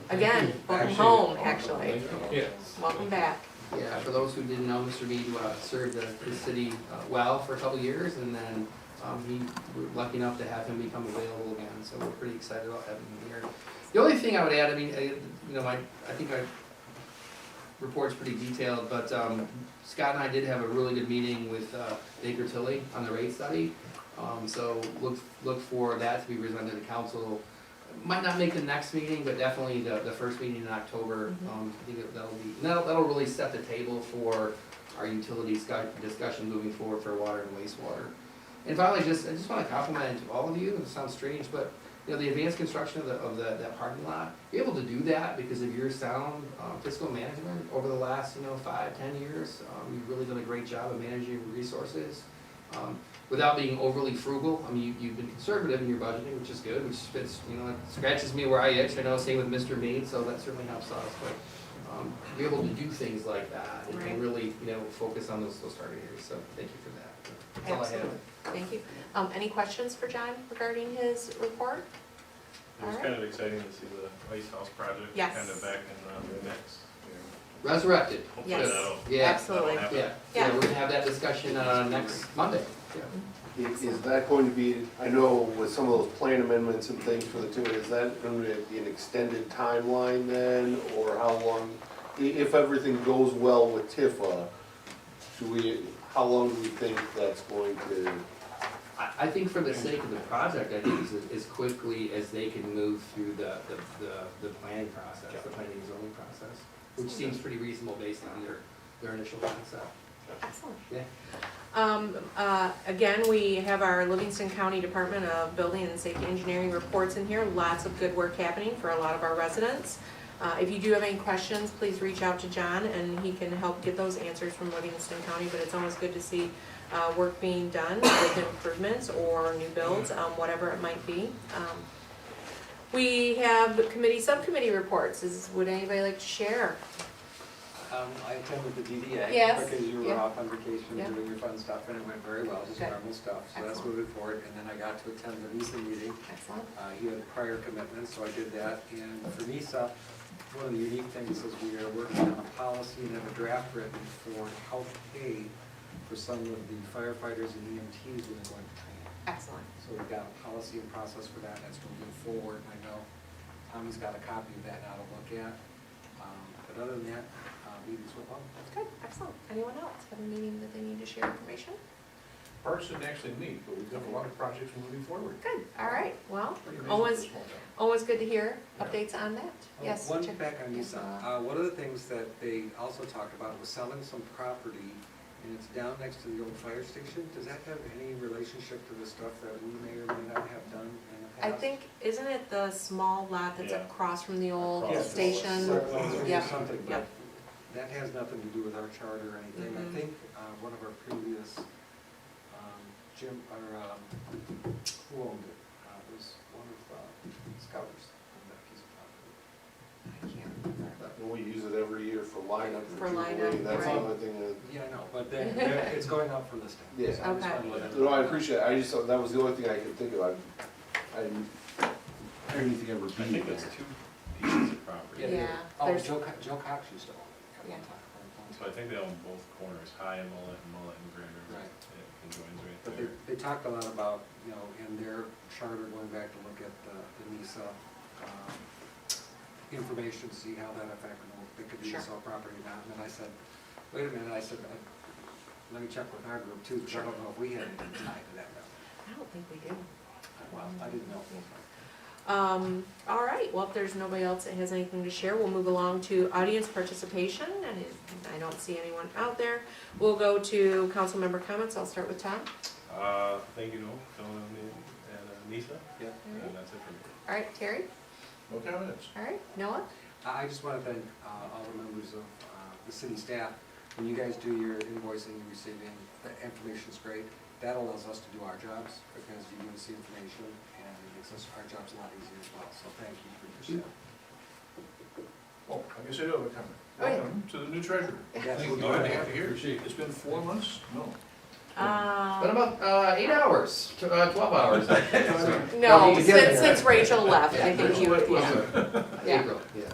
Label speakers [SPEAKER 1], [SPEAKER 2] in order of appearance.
[SPEAKER 1] Again, welcome home, actually.
[SPEAKER 2] Yes.
[SPEAKER 1] Welcome back.
[SPEAKER 3] Yeah, for those who didn't know, Mr. Mead uh, served the, the city uh, well for a couple of years, and then um, he, we're lucky enough to have him become available again, so we're pretty excited about having him here. The only thing I would add, I mean, I- you know, I, I think my report's pretty detailed, but um, Scott and I did have a really good meeting with uh, Baker Tilly on the rate study. Um, So look, look for that to be presented to council might not make the next meeting, but definitely the, the first meeting in October, um, I think that- that'll be, and that'll, that'll really set the table for our utility scu- discussion moving forward for water and wastewater. And finally, just, I just wanna compliment all of you, and it sounds strange, but, you know, the advanced construction of the, of the, that parking lot, you're able to do that because of your sound, um, fiscal management over the last, you know, five, ten years. Um, you've really done a great job of managing your resources, um, without being overly frugal. I mean, you, you've been conservative in your budgeting, which is good, which fits, you know, it scratches me where I itch. I know, same with Mr. Mead, so that certainly helps us, but, um, you're able to do things like that and-
[SPEAKER 1] Right.
[SPEAKER 3] and really, you know, focus on those, those target areas, so thank you for that. That's all I have.
[SPEAKER 1] Absolutely. Thank you. Um, any questions for John regarding his report?
[SPEAKER 2] It was
[SPEAKER 1] Alright.
[SPEAKER 2] kind of exciting to see the Ice House project
[SPEAKER 1] Yes.
[SPEAKER 2] kind of back in uh, the mix.
[SPEAKER 3] Resurrected,
[SPEAKER 2] Hopefully
[SPEAKER 1] Yes.
[SPEAKER 2] that'll-
[SPEAKER 3] yeah,
[SPEAKER 1] Absolutely.
[SPEAKER 2] that'll happen.
[SPEAKER 3] yeah, yeah, we're gonna have that discussion, uh, next Monday, yeah.
[SPEAKER 4] Is is that going to be, I know with some of those plan amendments and things for the two, is that going to be an extended timeline then? Or how long, i- if everything goes well with Tifa, do we, how long do we think that's going to?
[SPEAKER 3] I, I think for the sake of the project, I think it's as- as quickly as they can move through the, the, the, the planning process, the planning and zoning process, which seems pretty reasonable based on their, their initial concept.
[SPEAKER 1] Excellent.
[SPEAKER 3] Yeah.
[SPEAKER 1] Um, uh, again, we have our Livingston County Department of Building and Safety Engineering reports in here. Lots of good work happening for a lot of our residents. Uh, if you do have any questions, please reach out to John and he can help get those answers from Livingston County. But it's always good to see, uh, work being done with improvements or new builds, um, whatever it might be. Um, We have committee, subcommittee reports. Is, would anybody like to share?
[SPEAKER 5] Um, I attended the DDA.
[SPEAKER 1] Yes,
[SPEAKER 5] Because you were
[SPEAKER 1] yeah.
[SPEAKER 5] off on vacation
[SPEAKER 1] Yeah.
[SPEAKER 5] doing your fun stuff, and it went very well, just
[SPEAKER 1] Good.
[SPEAKER 5] normal stuff, so that's
[SPEAKER 1] Excellent.
[SPEAKER 5] moving forward. And then I got to attend the NISA meeting,
[SPEAKER 1] Excellent.
[SPEAKER 5] uh, he had a prior commitment, so I did that. And for NISA, one of the unique things is we are working on a policy and have a draft written for health aid for some of the firefighters and E EMTs when they're going to training.
[SPEAKER 1] Excellent.
[SPEAKER 5] So we've got a policy and process for that, that's moving forward, and I know Tommy's got a copy of that now to look at. Um, But other than that, uh, meetings went well.
[SPEAKER 1] Good, excellent. Anyone else have a meeting that they need to share information?
[SPEAKER 6] Parks didn't actually meet, but we've got a lot of projects moving forward.
[SPEAKER 1] Good, all right, well,
[SPEAKER 6] Pretty amazing for a
[SPEAKER 1] always,
[SPEAKER 6] small town.
[SPEAKER 1] always good to hear updates on that.
[SPEAKER 5] Oh,
[SPEAKER 1] Yes.
[SPEAKER 5] One
[SPEAKER 1] Jeff-
[SPEAKER 5] back on
[SPEAKER 1] yes,
[SPEAKER 5] Nissan,
[SPEAKER 1] uh,
[SPEAKER 5] uh, one of the things that they also talked about was selling some property, and it's down next to the old fire station. Does that have any relationship to the stuff that we may or may not have done in the
[SPEAKER 1] I
[SPEAKER 5] past?
[SPEAKER 1] think, isn't it the small lot that's
[SPEAKER 2] Yeah.
[SPEAKER 1] across from the old
[SPEAKER 2] Across.
[SPEAKER 1] station?
[SPEAKER 5] Circles or
[SPEAKER 1] Yep,
[SPEAKER 5] something, but
[SPEAKER 1] yep.
[SPEAKER 5] that has nothing to do with our charter or anything.
[SPEAKER 1] Mhm.
[SPEAKER 5] I think uh, one of our previous, um, Jim, or, um, who owned it? Uh, It was one of uh, Scouters on that piece of property.
[SPEAKER 1] I can't remember.
[SPEAKER 4] We use it every year for lineup.
[SPEAKER 1] For lineup,
[SPEAKER 4] Jubilee, That's
[SPEAKER 1] right.
[SPEAKER 4] another thing that.
[SPEAKER 5] Yeah, I know, but then, it's going up for listing.
[SPEAKER 4] Yeah.
[SPEAKER 5] So I just
[SPEAKER 1] Okay.
[SPEAKER 5] wanted to let
[SPEAKER 4] No, I
[SPEAKER 5] everybody know.
[SPEAKER 4] appreciate it, I just, that was the only thing I could think of, I, I didn't, I didn't think I ever
[SPEAKER 2] I think
[SPEAKER 4] beat
[SPEAKER 2] that's
[SPEAKER 4] it.
[SPEAKER 2] two pieces of property.
[SPEAKER 1] Yeah.
[SPEAKER 5] they- Oh,
[SPEAKER 1] there's-
[SPEAKER 5] Joe, Co- Joe Cox used to own it. at one
[SPEAKER 1] Yeah.
[SPEAKER 5] time, at one
[SPEAKER 2] So
[SPEAKER 5] time.
[SPEAKER 2] I think they own both corners, High and Mullet and Mullet and Grand River.
[SPEAKER 5] Right.
[SPEAKER 2] It conjoins
[SPEAKER 5] But
[SPEAKER 2] right
[SPEAKER 5] they,
[SPEAKER 2] there.
[SPEAKER 5] they talked a lot about, you know, in their charter, going back to look at the, the NISA, um, information, see how that affected, them, if they could do
[SPEAKER 1] Sure.
[SPEAKER 5] this all property or not, and then I said, wait a minute, I said, I- let me check with our group too, because I don't know if we had anything tied to that.
[SPEAKER 1] I don't think we do.
[SPEAKER 5] Well, I didn't know.
[SPEAKER 1] Um, all right, well, if there's nobody else that has anything to share, we'll move along to audience participation, and if I don't see anyone out there. We'll go to council member comments, I'll start with Tom.
[SPEAKER 2] Uh, thank you, Noel, Dylan and and, uh, Nisa,
[SPEAKER 5] Yep.
[SPEAKER 2] and that's it for me.
[SPEAKER 1] All right, Terry,
[SPEAKER 6] No comments.
[SPEAKER 1] all right, Noah?
[SPEAKER 5] I I just want to thank uh, all the members of uh, the city staff. When you guys do your invoicing, and receiving, the information's great. That allows us to do our jobs because you give us the information and it makes us, our jobs a lot easier as well. So thank you for your staff.
[SPEAKER 6] Oh, I guess I do have a comment.
[SPEAKER 1] Oh, yeah.
[SPEAKER 6] Welcome to the new treasurer. I
[SPEAKER 5] Yes.
[SPEAKER 6] think we're glad to have you here. It's been four months? No.
[SPEAKER 3] Been
[SPEAKER 1] Um,
[SPEAKER 3] about, uh, eight hours, tw- uh, twelve hours, I think, so.
[SPEAKER 1] no,
[SPEAKER 3] Together.
[SPEAKER 1] since, since Rachel left, I think you,
[SPEAKER 6] What was
[SPEAKER 1] yeah.
[SPEAKER 6] it?
[SPEAKER 1] Yeah.
[SPEAKER 3] April, yeah.